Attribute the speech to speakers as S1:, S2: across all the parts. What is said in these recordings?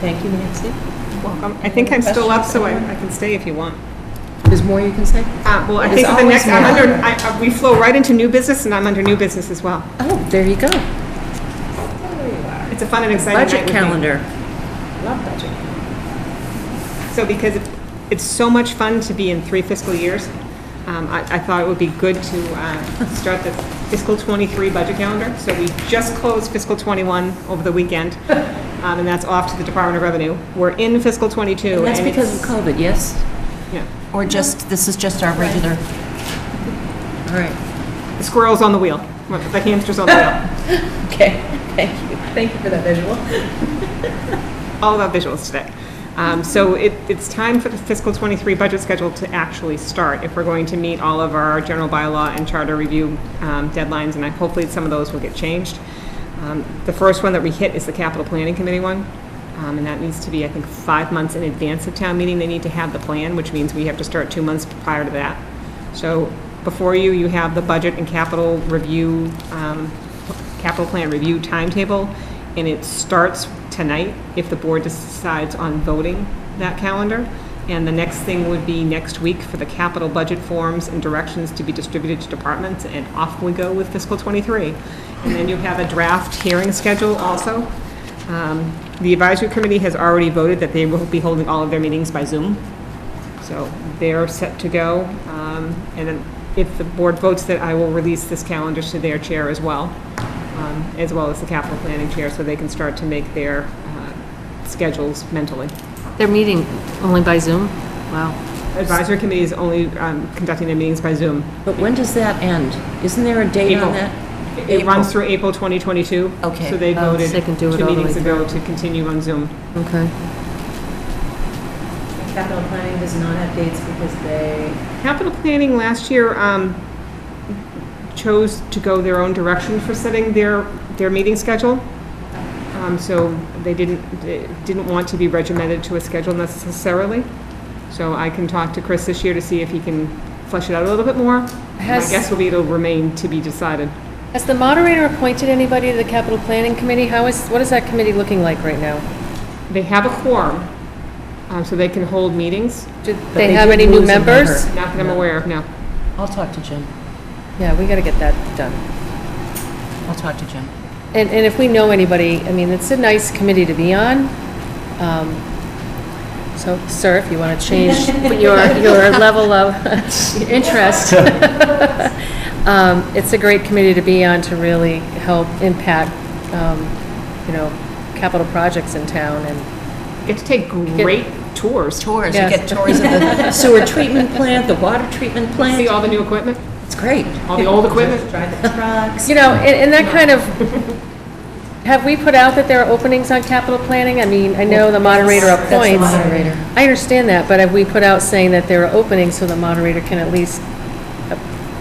S1: Thank you, Nancy.
S2: Welcome. I think I'm still up, so I I can stay if you want.
S1: There's more you can say?
S2: Uh, Well, I
S1: There's
S2: think the
S1: always
S2: next, I'm
S1: more.
S2: under, I- I- we flow right into new business, and I'm under new business as well.
S1: Oh, there you go.
S2: It's a fun and exciting night.
S1: Budget
S2: we think.
S1: calendar.
S2: So because it- it's so much fun to be in three fiscal years, um, I I thought it would be good to uh, start the fiscal '23 budget calendar. So we just closed fiscal '21 over the weekend, um, and that's off to the Department of Revenue. We're in fiscal '22.
S1: And That's because of
S2: it's-
S1: COVID, yes?
S2: yeah.
S3: Or just, this is just our regular,
S1: All right.
S2: The squirrel's on the wheel, the hamster's on the wheel.
S1: Okay, thank you. Thank you for that visual.
S2: All about visuals today. Um, So it- it's time for the fiscal '23 budget schedule to actually start if we're going to meet all of our general bylaw and charter review um, deadlines, and I- hopefully some of those will get changed. Um, The first one that we hit is the capital planning committee one, um, and that needs to be, I think, five months in advance of town meeting. They need to have the plan, which means we have to start two months prior to that. So before you, you have the budget and capital review, um, capital plan review timetable, and it starts tonight if the board decides on voting that calendar. And the next thing would be next week for the capital budget forms and directions to be distributed to departments, and off we go with fiscal '23. And then you have a draft hearing schedule also. Um, The advisory committee has already voted that they will be holding all of their meetings by Zoom. So they're set to go. Um, And then if the board votes that, I will release this calendar to their chair as well, um, as well as the capital planning chair, so they can start to make their uh, schedules mentally.
S1: They're meeting only by Zoom? Wow.
S2: Advisory committee is only um, conducting their meetings by Zoom.
S1: But when does that end? Isn't there a date
S2: April.
S1: on that?
S2: It runs through April 2022.
S3: Okay.
S2: So they
S1: Oh, so
S2: voted
S1: they can do it
S2: two
S1: all the
S2: meetings
S1: way
S2: ago to continue on Zoom.
S1: Okay.
S4: Capital planning does not have dates because they,
S2: Capital planning last year um, chose to go their own direction for setting their, their meeting schedule. Um, So they didn't, they didn't want to be regimented to a schedule necessarily. So I can talk to Chris this year to see if he can flesh it out a little bit more. My
S5: Has-
S2: guess will be it'll remain to be decided.
S5: Has the moderator appointed anybody to the capital planning committee? How is, what is that committee looking like right now?
S2: They have a quorum, uh, so they can hold meetings.
S5: Do
S1: they
S5: they have
S1: did
S5: any new
S1: lose a member.
S5: members?
S2: Not that I'm aware of, no.
S3: I'll talk to Jim,
S5: Yeah, we got to get that done.
S3: I'll talk to Jim.
S5: And, and if we know anybody, I mean, it's a nice committee to be on. Um, So, sir, if you want to change your, your level of interest, um, it's a great committee to be on to really help impact, um, you know, capital projects in town and
S2: Get to take great tours,
S3: Tours, you
S5: Yes.
S3: get tours of the sewer treatment plant, the water treatment
S2: see
S3: plant,
S2: all the new equipment,
S3: it's great.
S2: all the old equipment.
S4: drive the trucks.
S5: You know, and, and that kind of, have we put out that there are openings on capital planning? I mean, I know the moderator
S3: That's the
S5: appoints.
S3: moderator.
S5: I understand that, but have we put out saying that there are openings so the moderator can at least,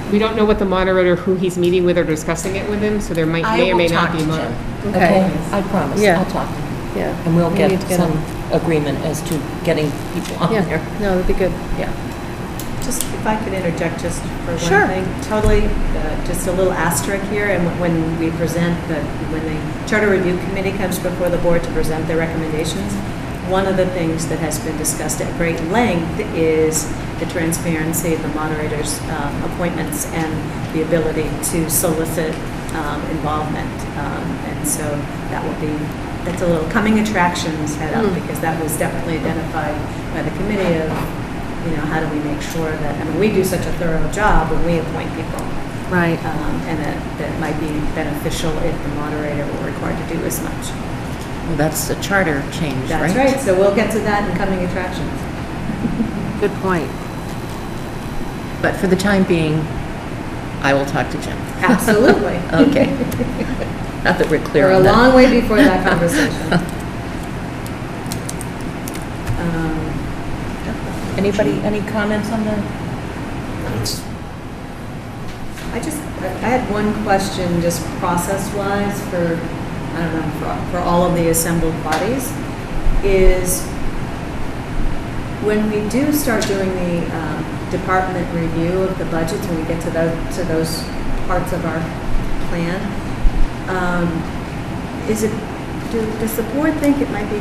S2: We don't know what the moderator, who he's meeting with or discussing it with him, so there might,
S3: I
S2: may or
S3: will
S2: may
S3: talk
S2: not
S3: to Jim,
S2: be. mo-
S3: Okay,
S5: Okay.
S3: I promise,
S5: Yeah.
S3: I'll talk to him,
S5: yeah.
S3: and we'll
S5: we
S3: get
S5: need to
S3: some
S5: on-
S3: agreement as to getting people on
S5: Yeah,
S3: there.
S5: no, that'd be good.
S3: Yeah,
S4: Just, if I could interject just for
S3: Sure.
S4: one thing. Totally, uh, just a little asterisk here, and when we present, the when the Charter Review Committee comes before the board to present their recommendations, one of the things that has been discussed at great length is the transparency of the moderator's um, appointments and the ability to solicit um, involvement. Um, And so that will be, that's a little coming attractions head up, because that was definitely identified by the committee of you know, how do we make sure that, I mean, we do such a thorough job when we appoint people,
S5: Right.
S4: um, and that, that might be beneficial if the moderator were required to do as much.
S3: well, that's a charter change, right?
S4: That's right, so we'll get to that in coming attractions.
S5: Good point.
S3: But for the time being, I will talk to Jim.
S4: Absolutely.
S3: Okay. Not that we're clear
S4: We're a
S3: on that.
S4: long way before that conversation. Um,
S3: Anybody, any comments on the
S6: It's
S4: I just, I I had one question, just process-wise, for, I don't know, for, for all of the assembled bodies, is when we do start doing the um, department review of the budgets, when we get to those, to those parts of our plan, um, is it, do- does the board think it might be